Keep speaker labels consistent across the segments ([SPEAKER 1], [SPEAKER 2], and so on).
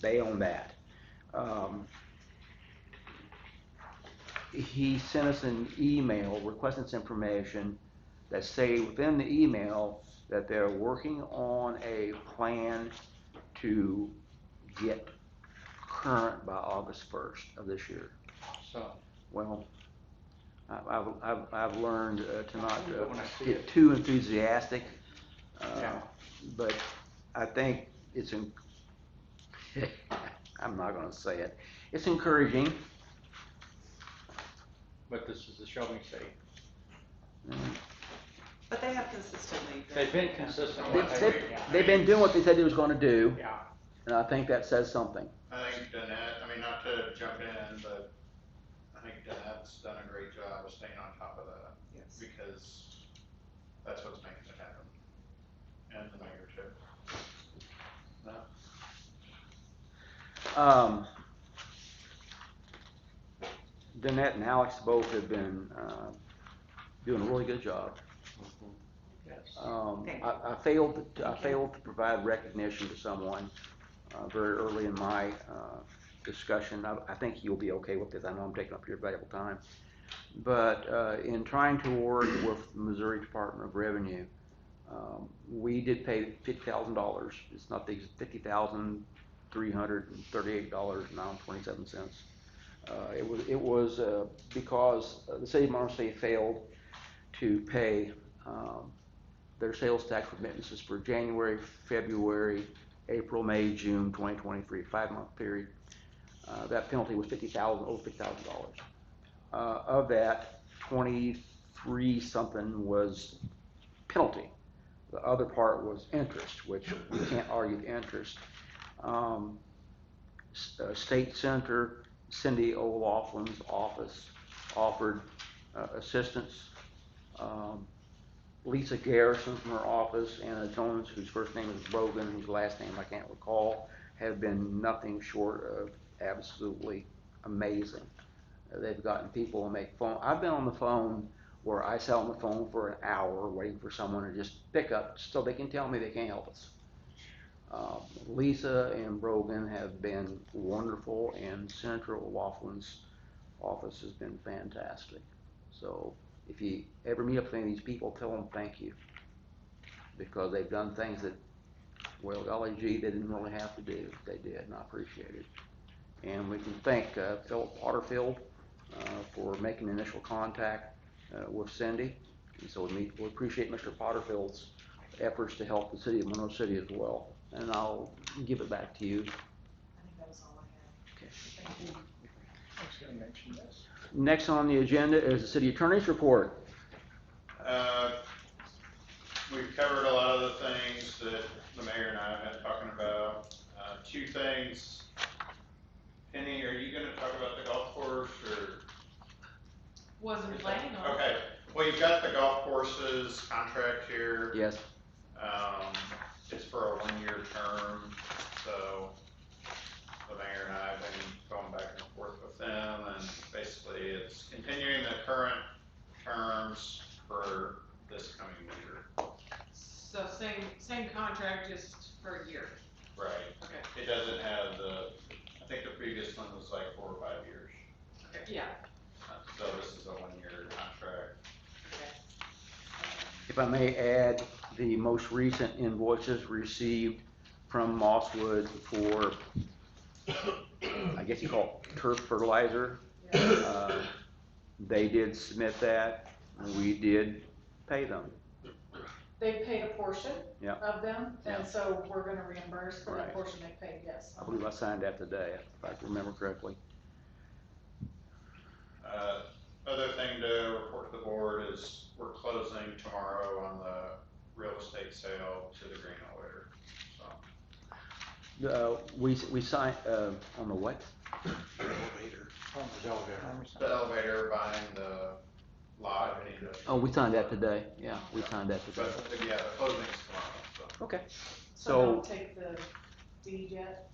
[SPEAKER 1] they own that. Um, He sent us an email requesting this information that say within the email that they're working on a plan to get current by August first of this year.
[SPEAKER 2] So,
[SPEAKER 1] Well, I- I've, I've, I've learned uh, to not
[SPEAKER 2] I
[SPEAKER 1] uh,
[SPEAKER 2] when I see
[SPEAKER 1] get
[SPEAKER 2] it.
[SPEAKER 1] too enthusiastic. uh,
[SPEAKER 2] Yeah.
[SPEAKER 1] But I think it's, en- I'm not gonna say it, it's encouraging.
[SPEAKER 2] but this is the shelving state.
[SPEAKER 3] But they have consistently. been-
[SPEAKER 2] They've been consistent.
[SPEAKER 1] They've,
[SPEAKER 2] with it,
[SPEAKER 1] they've-
[SPEAKER 2] yeah.
[SPEAKER 1] they've been doing what they said they was gonna do,
[SPEAKER 2] Yeah,
[SPEAKER 1] and I think that says something.
[SPEAKER 4] I think Danette, I mean, not to jump in, but I think Danette's done a great job of staying on top of that
[SPEAKER 3] Yes.
[SPEAKER 4] because that's what's making it happen. And the mayor too.
[SPEAKER 1] Um, Danette and Alex both have been, uh, doing a really good job.
[SPEAKER 2] yes.
[SPEAKER 1] Um,
[SPEAKER 3] Thank
[SPEAKER 1] I, I failed, to- I failed to provide recognition to someone, uh, very early in my, uh, discussion. I, I think you'll be okay with this. I know I'm taking up your valuable time. But, uh, in trying to work with Missouri Department of Revenue, um, we did pay fifty thousand dollars. It's not the fifty thousand, three hundred and thirty-eight dollars and twenty-seven cents. Uh, it was, it was, uh, because the city of Monmouth City failed to pay, um, their sales tax remittances for January, February, April, May, June, twenty twenty-three, five-month period. Uh, that penalty was fifty thousand, over fifty thousand dollars. Uh, of that, twenty-three something was penalty. The other part was interest, which we can't argue the interest. Um, S- uh, State Senator Cindy O'Loughlin's office offered, uh, assistance. Um, Lisa Garrison from her office, Anna Jones, whose first name is Brogan, whose last name I can't recall, have been nothing short of absolutely amazing. Uh, They've gotten people to make phone, I've been on the phone where I sat on the phone for an hour waiting for someone to just pick up so they can tell me they can't help us. Uh, Lisa and Brogan have been wonderful and Central Laughlin's office has been fantastic. So if you ever meet up with any of these people, tell them thank you. Because they've done things that, well, golly gee, they didn't really have to do, they did, and I appreciate it. And we can thank, uh, Philip Potterfield, uh, for making initial contact, uh, with Cindy. And so we meet, we appreciate Mr. Potterfield's efforts to help the city of Monroe City as well. And I'll give it back to you.
[SPEAKER 3] I think that was all I
[SPEAKER 1] Okay.
[SPEAKER 3] had. Thank you.
[SPEAKER 2] I was gonna mention this.
[SPEAKER 1] Next on the agenda is the city attorney's report.
[SPEAKER 4] Uh, We've covered a lot of the things that the mayor and I have been talking about. Uh, Two things. Penny, are you gonna talk about the golf course or?
[SPEAKER 5] Wasn't planning
[SPEAKER 6] Uh-huh.
[SPEAKER 5] on.
[SPEAKER 4] Okay, well, you've got the golf courses contract here.
[SPEAKER 1] Yes,
[SPEAKER 4] Um, it's for a one-year term, so the mayor and I have been going back and forth with them, and basically it's continuing the current terms for this coming year.
[SPEAKER 5] So same, same contract, just for a year.
[SPEAKER 4] Right.
[SPEAKER 5] Okay.
[SPEAKER 4] It doesn't have the, I think the previous one was like four or five years,
[SPEAKER 5] Okay. Yeah,
[SPEAKER 4] Uh, so this is a one-year contract.
[SPEAKER 5] okay.
[SPEAKER 1] If I may add, the most recent invoices received from Mosswood for, I guess you call it turf fertilizer.
[SPEAKER 5] Yeah.
[SPEAKER 1] uh, They did submit that, and we did pay them.
[SPEAKER 6] They paid a portion
[SPEAKER 1] Yeah.
[SPEAKER 6] of them,
[SPEAKER 1] Yeah.
[SPEAKER 6] and so we're gonna reimburse for
[SPEAKER 1] Right.
[SPEAKER 6] the portion they paid, yes.
[SPEAKER 1] I believe I signed that today, if I can remember correctly.
[SPEAKER 4] Uh, Other thing to report to the board is we're closing tomorrow on the real estate sale to the Green Lawyer. So
[SPEAKER 1] Uh, We, we signed, uh, on the what?
[SPEAKER 2] From the elevator.
[SPEAKER 4] the elevator buying the lot and the.
[SPEAKER 1] Oh, we signed that today, yeah, we signed that today.
[SPEAKER 4] But yeah, the closing's tomorrow, so.
[SPEAKER 1] Okay,
[SPEAKER 6] So
[SPEAKER 1] So-
[SPEAKER 6] don't take the deed yet,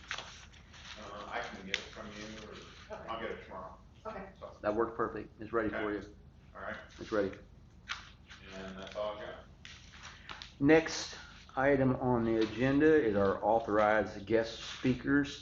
[SPEAKER 4] uh, I can get it from you or
[SPEAKER 6] Okay.
[SPEAKER 4] I'll get it tomorrow.
[SPEAKER 6] okay.
[SPEAKER 4] So,
[SPEAKER 1] that worked perfect, it's ready for you,
[SPEAKER 4] all right,
[SPEAKER 1] it's ready.
[SPEAKER 4] and that's all I got.
[SPEAKER 1] Next, item on the agenda is our authorized guest speakers.